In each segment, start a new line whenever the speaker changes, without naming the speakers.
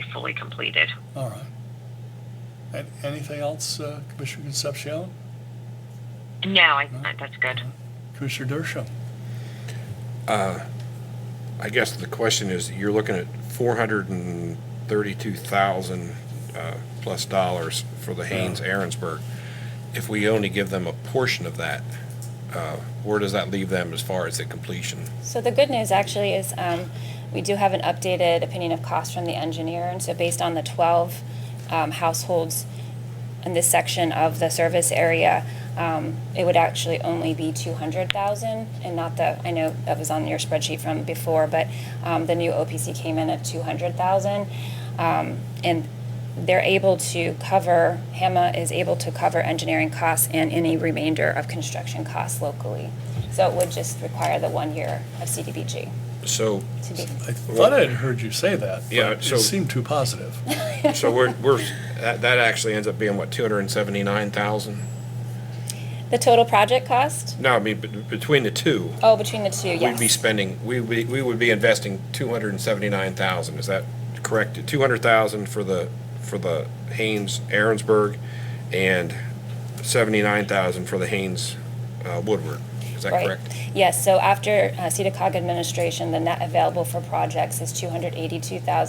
be fully completed.
All right. And anything else, uh, Commissioner Concepcion?
No, I, that's good.
Commissioner Dershowitz?
I guess the question is, you're looking at four hundred and thirty-two thousand, uh, plus dollars for the Haynes Aaronsburg. If we only give them a portion of that, uh, where does that leave them as far as the completion?
So the good news actually is um, we do have an updated opinion of cost from the engineer. And so based on the 12 um, households in this section of the service area, um, it would actually only be 200,000 and not the, I know that was on your spreadsheet from before, but um, the new OPC came in at 200,000. Um, And they're able to cover, HAMA is able to cover engineering costs and any remainder of construction costs locally. So it would just require the one year of CDBG
So,
to be,
I thought I had heard you say that. but
Yeah,
It
so-
seemed too positive.
so we're, we're, that, that actually ends up being what, two hundred and seventy-nine thousand?
the total project cost?
No, I mean, be- between the two,
Oh, between the two,
we'd be
yes.
spending, we, we, we would be investing two hundred and seventy-nine thousand, is that correct? Two hundred thousand for the, for the Haynes Aaronsburg and seventy-nine thousand for the Haynes uh, Woodward, is that
Right.
correct?
Yes, so after uh, CEDACOG administration, the net available for projects is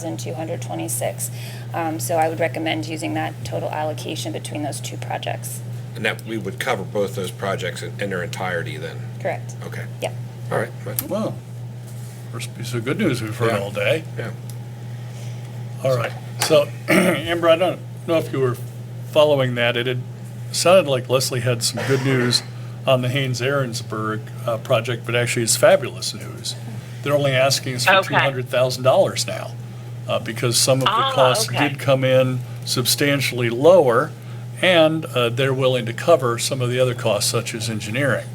282,226. Um, So I would recommend using that total allocation between those two projects.
And that, we would cover both those projects in in their entirety then,
Correct?
okay,
Yep.
all right, but,
Well, first piece of good news we've heard all day.
yeah.
All right. So, Amber, I don't know if you were following that. It had sounded like Leslie had some good news on the Haynes Aaronsburg uh, project, but actually it's fabulous news. They're only asking us for
Okay.
$200,000 now uh, because some of the
Ah,
costs
okay.
did come in substantially lower, and uh, they're willing to cover some of the other costs, such as engineering.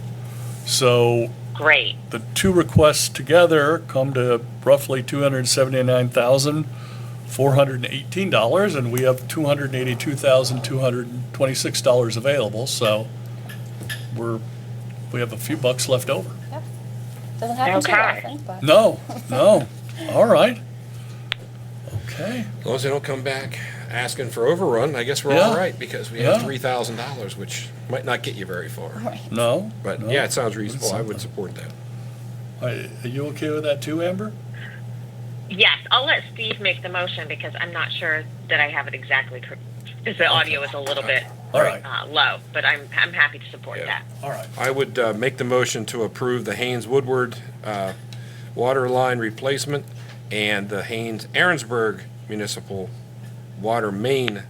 So,
Great.
the two requests together come to roughly two hundred seventy-nine thousand, four hundred and eighteen dollars, and we have two hundred eighty-two thousand, two hundred and twenty-six dollars available, so we're, we have a few bucks left over.
Doesn't happen too
Okay.
often, but.
No, no, all right. Okay,
As long as they don't come back asking for overrun, I guess we're
Yeah.
all right, because we have
Yeah.
three thousand dollars, which might not get you very far.
no?
But,
no.
yeah, it sounds reasonable, I
something.
would support that.
Are are you okay with that too, Amber?
Yes, I'll let Steve make the motion because I'm not sure that I have it exactly correct. Because the audio is a little bit
All right.
uh, low, but I'm I'm happy to support
Yeah.
that.
All right,
I would uh, make the motion to approve the Haynes Woodward uh, water line replacement and the Haynes Aaronsburg Municipal Water Main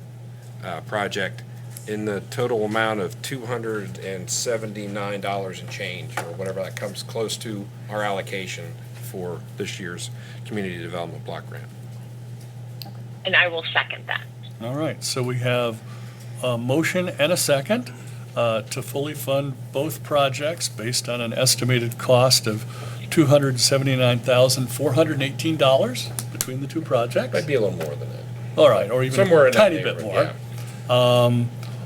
uh, project in the total amount of $279 and change, or whatever that comes close to our allocation for this year's Community Development Block Grant.
And I will second that.
all right, so we have a motion and a second uh, to fully fund both projects based on an estimated cost of $279,418 between the two
Might
projects.
be a little more than that,
All right, or even
somewhere
a
in that
tiny bit
neighborhood,
more.
yeah.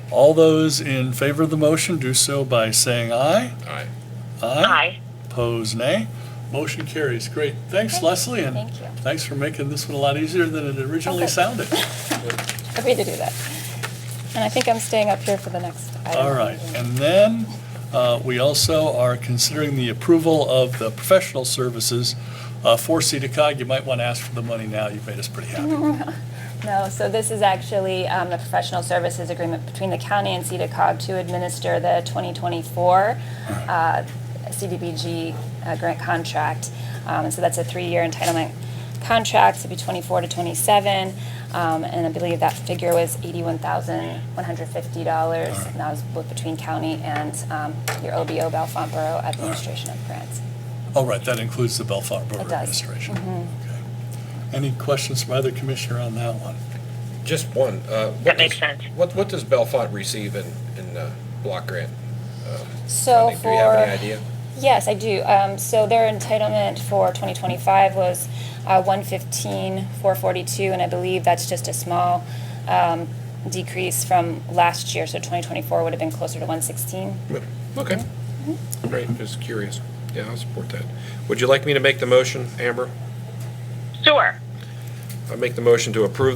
All those in favor of the motion do so by saying aye.
All right.
Aye.
Pose nay. Motion carries. Great. Thanks, Leslie, and
Thank you.
thanks for making this one a lot easier than it originally
Okay.
sounded.
Happy to do that. And I think I'm staying up here for the next item.
All right, and then uh, we also are considering the approval of the professional services uh, for CEDACOG. You might want to ask for the money now, you've made us pretty happy.
No, so this is actually um, the professional services agreement between the county and CEDACOG to administer the 2024 uh, CDBG uh, grant contract. Um, And so that's a three-year entitlement contract, so it'd be 24 to 27. Um, And I believe that figure was $81,150. And that was both between county and um, your OBO, Bellefonte Borough Administration of Grants.
All right, that includes the Bellefonte Borough
Mm-hmm. It does. Mm-hmm.
Administration. Okay. Any questions from either commissioner on that one?
Just one. uh, what
That makes
does-
sense.
What, what does Bellefonte receive in, in uh, block grant?
So
funding? Do
for.
you have any idea?
Yes, I do. Um, so their entitlement for 2025 was uh, 115,442, and I believe that's just a small um, decrease from last year. So 2024 would have been closer to 116.
Okay.
Mm-hmm.
Great, just curious. Yeah, I'll support that. Would you like me to make the motion, Amber?
Sure.
I make the motion to approve the